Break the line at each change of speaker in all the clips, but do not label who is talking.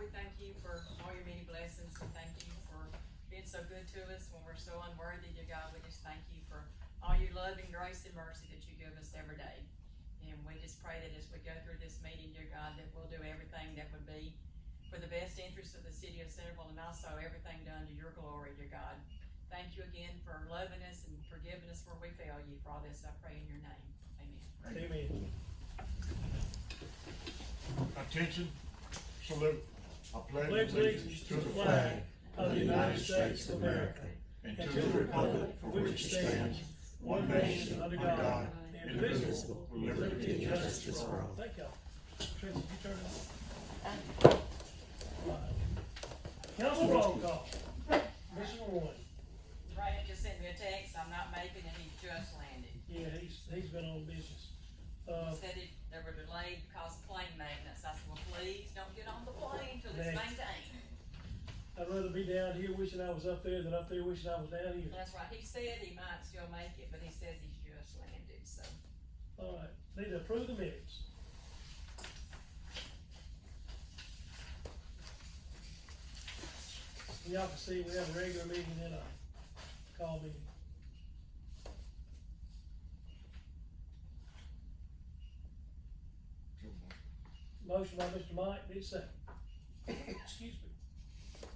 we thank you for all your many blessings. We thank you for being so good to us when we're so unworthy, dear God. We just thank you for all your love and grace and mercy that you give us every day. And we just pray that as we go through this meeting, dear God, that we'll do everything that would be for the best interest of the city of Centerville and also everything done to your glory, dear God. Thank you again for loving us and forgiving us where we fail you. For all this, I pray in your name. Amen.
Amen.
Attention, salute. I
Pledge allegiance to the flag of the United States of America
and
and to the republic for which it stands, one nation under God, indivisible, with liberty and justice for all. Thank y'all. Tracy, you turn it on. Council roll call. Mr. Warren,
Brad just sent me a text, I'm not making it, he just landed.
yeah, he's, he's been on business. Uh,
Said it, they were delayed because of plane maintenance, I said, well, please don't get on the plane till it's
Thanks.
maintained.
I'd rather be down here wishing I was up there than up there wishing I was down here.
That's right, he said he might still make it, but he says he's just landed, so.
All right, need to approve the minutes. Y'all can see we have a regular meeting and a call meeting. Motion by Mr. Mike, need a second. Excuse me.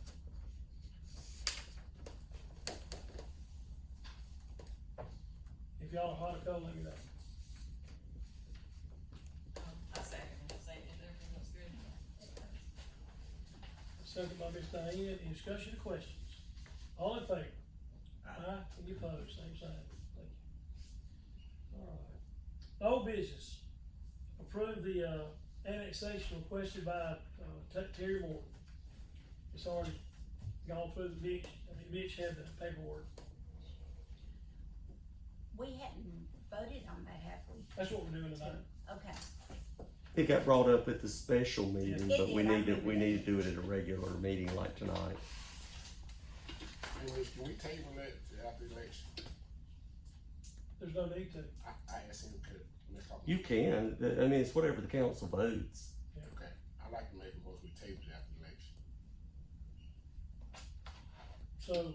If y'all are hot or cold, let me know.
um, I second it, I say it, everything looks good.
Second by Ms. Diane, any discussion or questions? All in favor? Aye. Any opposed, same sign, thank you. Alright. Old business, approve the, uh, annexation requested by, uh, Ta- Terry Moore. It's already gone through the Mitch, I mean, Mitch had the paperwork,
We hadn't voted on that, have we?
that's what we're doing tonight.
Okay,
It got brought up at the special meeting,
It
but we
did, I
need to, we
remember.
need to do it at a regular meeting like tonight.
Can we, can we table that to after the election?
There's no need to,
I, I asked him, could, Ms. Copeland?
You can, I mean, it's whatever the council votes.
Okay, I'd like to make a motion, we table it after the
so,
election.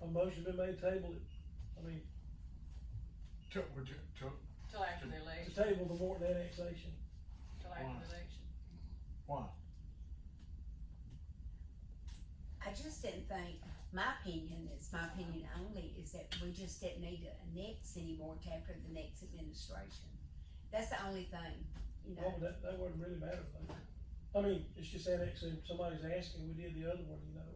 a motion been made, table it, I mean,
To, would you- to,
Till after the
to
election,
table the Morton annexation.
till after the election.
why?
I just didn't think, my opinion, it's my opinion only, is that we just didn't need to annex anymore to after the next administration. That's the only thing, you
Well,
know,
that, that wouldn't really matter, though. I mean, it's just annexing, somebody's asking, we did the other one, you know.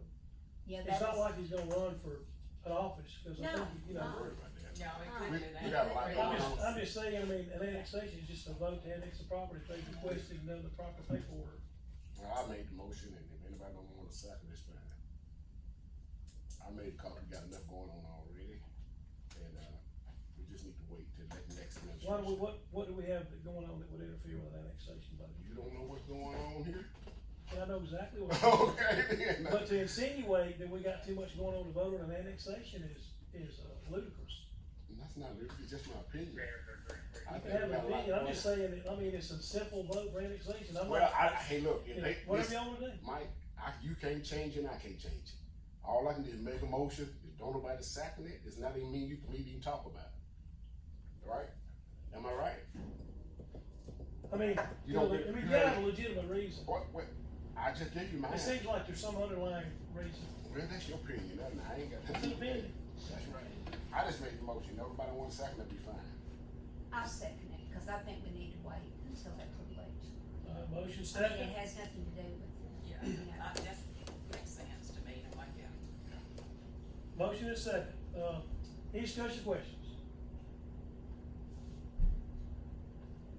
yeah,
It's
that's,
not like he's gonna run for an office, cause I think,
No,
you
Don't
know.
worry about that.
No, we
We,
couldn't do that.
we got a
no.
lot
I'm
going
just, I'm
on.
just saying, I mean, an annexation is just a vote to annex the property, if they requested and done the proper paperwork.
Well, I made the motion, and if anybody don't wanna second, it's fine. I made a call, we got enough going on already, and, uh, we just need to wait till that next administration.
Why do we, what, what do we have that going on that would interfere with an annexation vote?
You don't know what's going on here?
And I know exactly what,
Okay, then.
but to insinuate that we got too much going on to vote on an annexation is, is uh, ludicrous.
That's not, really- it's just my opinion. I
You can
think
have an
we got a lot
opinion, I'm
going
just saying, that- I mean, it's a simple vote for annexation,
on.
I'm
Well,
not,
I, hey, look, if they.
whatever
listen,
y'all wanna do.
Mike, I, you can't change it, and I can't change it. All I can do is make a motion, if don't nobody second it, it's not even mean you can even talk about it. Right? Am I right?
I mean, you
You
know,
don't
I
get-
mean,
you
you have a
don't-
legitimate reason.
What, what, I just gave you mine.
It seems like there's some underlying reason.
Well, that's your opinion, that's not- I ain't got
It's
nothing
an
to do with
opinion.
that. That's right. I just made the motion, everybody wants second, that'd be fine.
I second it, cause I think we need to wait until after the election.
Uh, motion
I mean,
second.
it has nothing to do with,
Yeah, I- that makes sense to me, I'm like, yeah.
Motion is second. Uh, any discussion questions?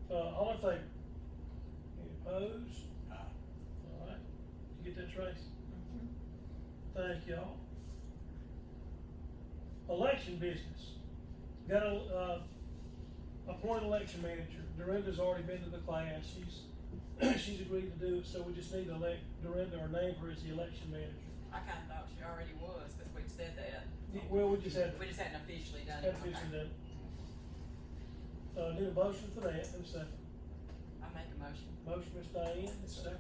Uh, all in favor? Any opposed? All right. Did you get that, Tracy? Thank y'all. Election business. Got a, uh, appoint election manager. Dorinda's already been to the class. She's, she's agreed to do it, so we just need to elect Dorinda or name her as the election manager.
I kinda thought she already was, cause we'd said that,
Well, we just had,
we just hadn't officially done it.
had
Okay.
fishing done. Uh, need a motion for that, and a second.
I make a motion.
Motion, Ms. Diane, and a second.